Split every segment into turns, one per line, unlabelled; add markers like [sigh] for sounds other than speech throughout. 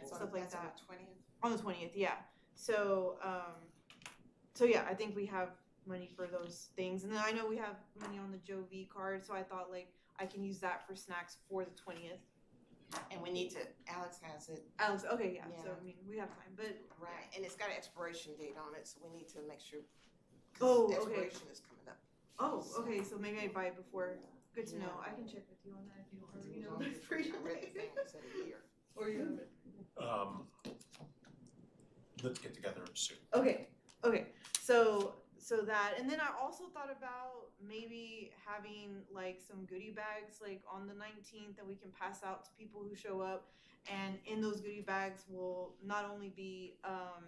at that
twentieth.
um, on the twentieth, yeah. So, um, so yeah, I think we have money for those things, and then I know we have money on the Joe V card, so I thought like I can use that for snacks for the twentieth.
And we need to, Alex has it,
Alex, okay, yeah. So
Yeah.
I mean, we have time, but
right, and it's got an expiration date on it, so we need to make sure. 'cause
Oh, okay.
Expiration is coming up.
oh, okay. So maybe I buy it before. Good to know.
Yeah.
I can check with you on that if you want. Or, you
As
know,
long as it's
[laughs] for
free.
you.
I read the thing,
[laughs]
it said a year.
or you have it.
Um, let's get together soon.
Okay, okay. So so that and then I also thought about maybe having like some goodie bags like on the 19th that we can pass out to people who show up and in those goodie bags will not only be um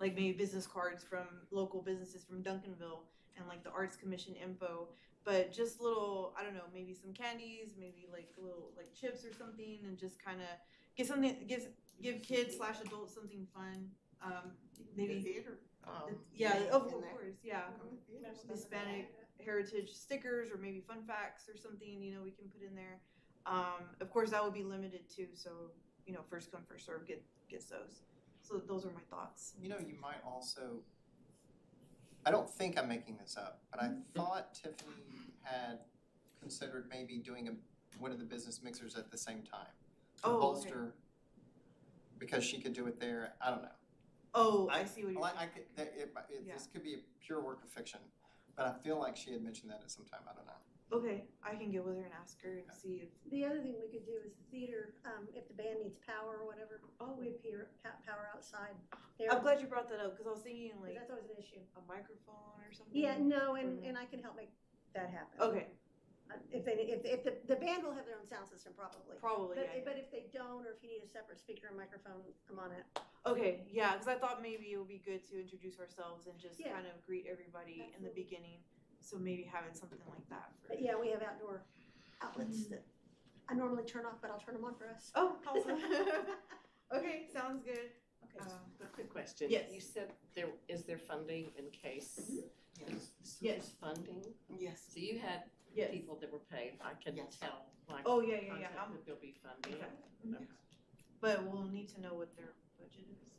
like maybe business cards from local businesses from Duncanville and like the arts commission info but just little I don't know maybe some candies maybe like little like chips or something and just kind of get something give give kids slash adults something fun um maybe
The theater. um,
yeah,
thing
of
in there.
course, yeah.
Come to theater stuff.
Hispanic heritage stickers or maybe fun facts or something, you know, we can put in there. Um, of course, that would be limited too, so, you know, first come, first serve, get, gets those. So those are my thoughts.
You know, you might also, I don't think I'm making this up, but
Mm-hmm.
I thought Tiffany had considered maybe doing a, one of the business mixers at the same time. to
Oh, okay.
bolster, because she could do it there, I don't know.
Oh, I see what you're
Well, I- I
saying.
could, that, it, might- it,
Yeah.
this could be a pure work of fiction, but I feel like she had mentioned that at some time, I don't know.
Okay, I can get with her and ask her and see if,
The other thing we could do is the theater, um, if the band needs power or whatever,
oh,
we
wait.
have peer, pa- power outside there.
I'm glad you brought that up because I was thinking
But
like
That's always an issue.
a microphone or something.
Yeah, no, and,
Mhm.
Mm-hmm.
and I can help make that happen.
Okay,
Uh, If they, if, if the, the band will have their own sound system probably.
probably.
But,
yeah, yeah.
but if they don't, or if you need a separate speaker and microphone, I'm on it.
Okay, yeah, because I thought maybe it would be good to introduce ourselves and just
Yeah.
kind of greet everybody in the
Absolutely.
beginning. So maybe having something like that. For...
But yeah, we have outdoor outlets
Mm-hmm.
that I normally turn off, but I'll turn them on for us.
Oh, awesome. [laughs] okay, sounds good.
Okay,
Uh,
a quick question.
yes.
You said there, is there funding in case?
Yes.
So there's funding?
Yes. [laughs]
So you had
Yes.
people that were paid, I can
Yes.
tell, like,
Oh yeah, yeah, yeah.
contact
I'm,
that there'll be funding.
Okay. but we'll need to know what their budget is.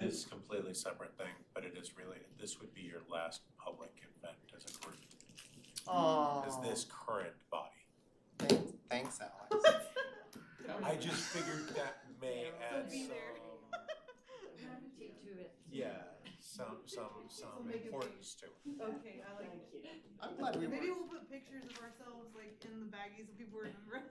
This is a completely separate thing, but it is related. This would be your last public event as a group,
Oh.
as this current body.
Thank- Thanks, Alex.
[laughs]
I just figured that may
Yeah.
add
So be
some,
there.
Do it.
yeah, some, some,
So
some
make it big.
importance to it.
Okay, I
Thank you.
I'm glad we
Maybe
were,
we'll put pictures of ourselves like in the baggies so people remember us.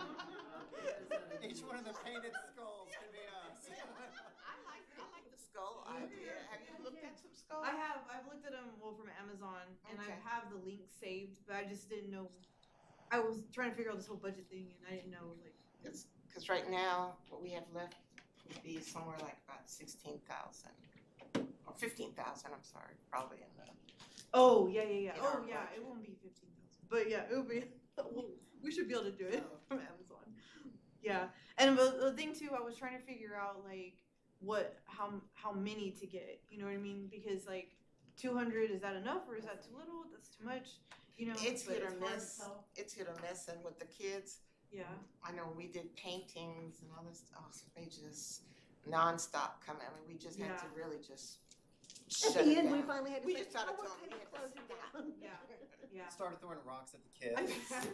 uh,
each one of the painted skulls could be us.
I like, I like the skull idea. Have you looked at some skulls?
[laughs] I have. I've looked at them well from Amazon, and
Okay.
I have the link saved, but I just didn't know. I was trying to figure out this whole budget thing, and I didn't know like.
It's, cause right now, what we have left would be somewhere like about sixteen thousand, or fifteen thousand, I'm sorry, probably in the.
Oh yeah, yeah, yeah.
In
Oh
our
yeah, it
budget.
won't be fifteen thousand, but yeah, it'll be. [laughs] we'll- we should be able to do it
Oh.
[laughs] from Amazon. Yeah, and the, the thing too, I was trying to figure out like what how how many to get. You know what I mean? Because like two hundred is that enough or is that too little? That's too much. You know,
It's
but
hit or
hard to
miss.
tell.
It's hit or miss, and with the kids,
Yeah.
I know we did paintings and all this, oh, they just nonstop come, I mean, we just had to really just
At
shut
the
it
end, we
down.
finally had to
We
say,
just started
oh, we're
telling
kind
them we had to
of closing down.
Yeah. [laughs]
[laughs]
Yeah.
Started throwing rocks at the
[laughs]
kids,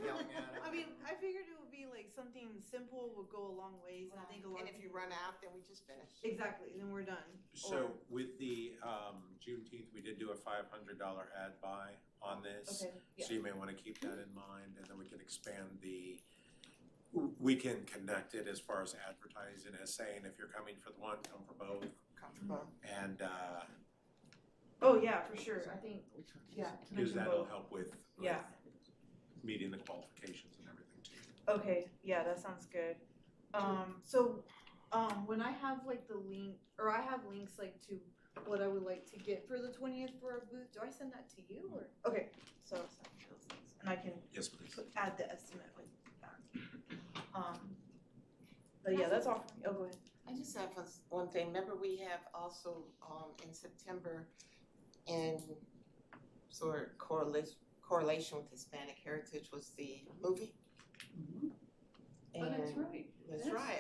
yelling at them.
I mean, I figured it would be like something simple would go a long ways, and I think a lot.
And
of
if you
people-
run out, then we just finish.
exactly, then we're done.
So
Or-
with the um Juneteenth, we did do a five hundred dollar ad buy on this.
Okay. Yeah.
So you may wanna keep that in mind and then we can expand the, we can connect it as far as advertising as saying, if you're coming for the one, come for both.
Comfortable.
And uh,
Oh yeah, for sure. I think yeah.
because
mention
that'll
both.
help with with
Yeah.
meeting the qualifications and everything too.
Okay, yeah, that sounds good. Um, so, um, when I have like the link, or I have links like to what I would like to get for the twentieth for our booth, do I send that to you or? Okay, so, I'll send you those links, and I can
Yes, please.
put- add the estimate with that. Um, but yeah, that's all for me. Oh, go ahead.
I just have a- one thing, remember we have also, um, in September, in sort of correlation, correlation with Hispanic heritage was the movie?
Oh, that's
And-
right.
That's
Yes.
right,